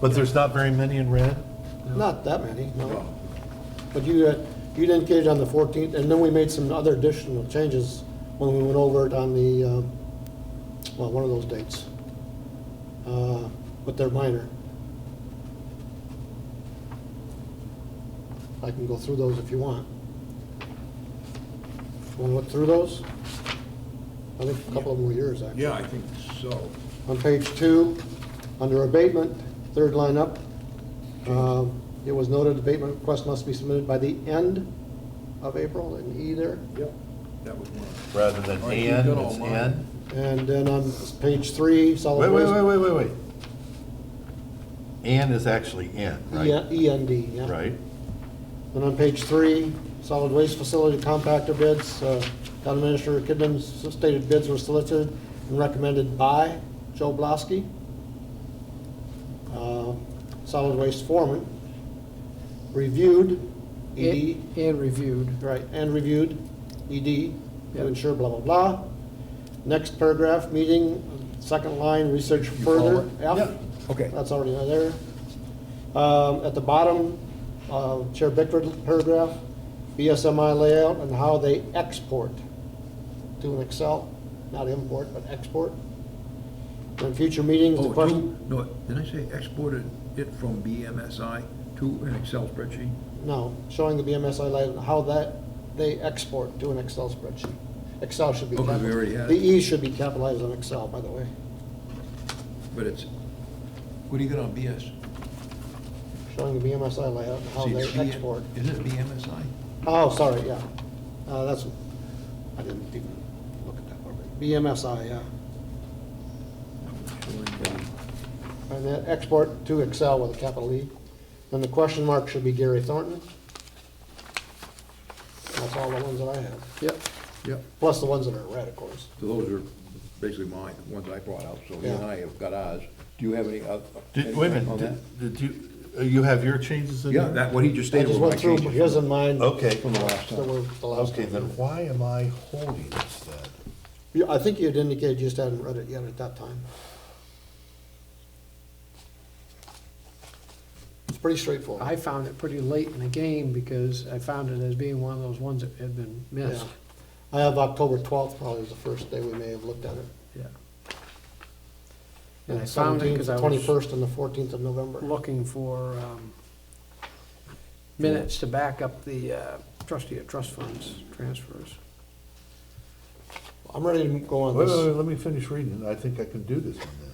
But there's not very many in red? Not that many, no. But you, uh, you'd indicated on the 14th, and then we made some other additional changes when we went over it on the, um, well, one of those dates. Uh, But they're minor. I can go through those if you want. Want to look through those? I think a couple of them were yours, actually. Yeah, I think so. On page two, under abatement, third line up, uh, it was noted abatement request must be submitted by the end of April, an E there. Yep. That was one. Rather than All right, you've and, got all it's mine. and? And then on page three, solid Wait, wait, waste. wait, wait, wait, wait. And is actually in, right? E- END, yeah. Right? And on page three, solid waste facility compactor bids, uh, town administrator Kidman's stated bids were solicited and recommended by Joe Blasky, uh, solid waste foreman, reviewed, E ED. And and reviewed. Right, and reviewed, ED, Yeah. to ensure blah, blah, blah. Next paragraph, meeting, second line, research further. F. Okay. That's already there. Um, At the bottom, uh, Chair Bickford paragraph, BSMI layout and how they export to an Excel, not import, but export. In future meetings, the Oh, question, to, no, did I say exported it from BMSI to an Excel spreadsheet? no, showing the BMSI layout and how that, they export to an Excel spreadsheet. Excel should be Okay, we capitalized. already had The it. E should be capitalized on Excel, by the way. But it's, what do you got on BS? showing the BMSI layout and how See, E they it's B- Oh, export. Isn't it BMSI? Oh, sorry, yeah. Uh, That's, I didn't even look at that part. BMSI, yeah. And then export to Excel with a capital E. And the question mark should be Gary Thornton. That's all the ones that I have, Yep, yep. plus the ones that are red, of course. So those are basically mine, the ones I brought out, so you and Yeah. I have got ours. Do you have any other? Did, wait a anything on minute, that? did- did you, uh, you have your changes in there? Yeah, that, what he just I stated just was my went through changes. his and mine. Okay, From the last That time. were the last okay, time. then why am I holding this then? You- I think you'd indicated you just hadn't read it yet at that time. It's pretty straightforward. I found it pretty late in the game because I found it as being one of those ones that had been Yeah, missed. I have October twelfth probably was the first day we may have looked at it. Yeah. And I found it because I was Twenty-first and the fourteenth of November. looking for um, minutes to back up the uh, trustee of trust funds transfers. I'm ready to go on Wait, wait, wait, this. let me finish reading, I think I can do this one then.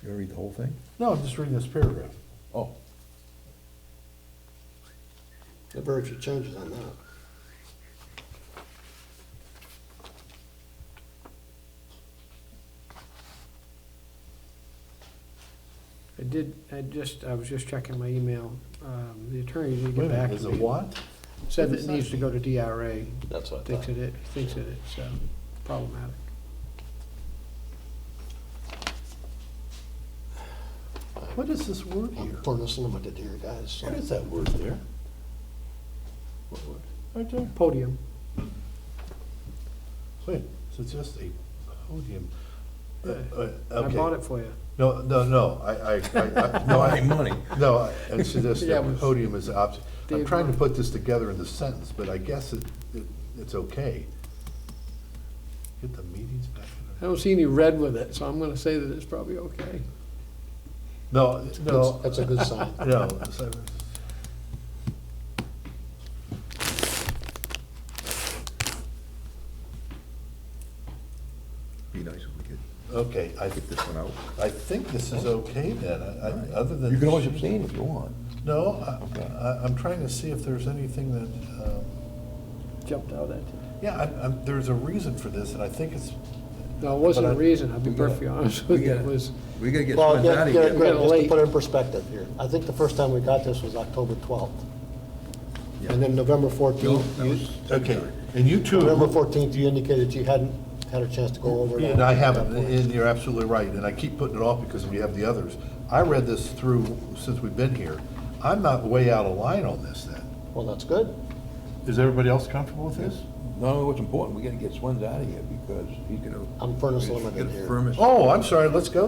You gonna read the whole thing? No, I'm just reading this paragraph. Oh. There are very few changes on that. I did, I just, I was just checking my email. Um, The attorney did Wait a get back minute, to me. is it what? Said that it needs to go to DRA, That's what thinks that it, thinks that it's uh, problematic. What is this word I'm here? putting this limited here, guys. so- What is that word there? Right there. Podium. Wait, so it's just a podium. Uh, uh, I okay. bought it for you. No, no, no, I, I, I, I- no, I, money. no, I- it's just Yeah, that but- podium is an option. I'm Dave, trying to uh, put this together in the sentence, but I guess it, it, it's okay. Get the meetings back I in. don't see any red with it, so I'm gonna say that it's probably okay. No, That's- no, That's a good sign. no. so- Be nice if we could Okay, I, get this one out. I think this is okay then, I, I, other than. You can always abstain if you want. No, I, Okay. I, I'm trying to see if there's anything that, um, Jumped out at you. yeah, I, I'm, there's a reason for this, and I think it's, No, it wasn't But a I- reason, I'll be we gotta- perfectly honest we with you, it gotta- was, We gotta get Well, Spence out Gary, of Gary, here. Garrett- Greg, Kinda just to late. put it in perspective here, I think the first time we got this was October twelfth. Yeah. And then November No, fourteenth, that you, was- okay, and you two. November fourteenth, you indicated you hadn't had a chance to go over that. And I haven't, that point. and you're absolutely right, and I keep putting it off because we have the others. I read this through since we've been here. I'm not way out of line on this then. Well, that's good. Is everybody else comfortable with this? No, what's important, we gotta get Swens out of here because he's gonna. I'm furnace he's limited gonna here. furnace- Oh, I'm sorry, let's go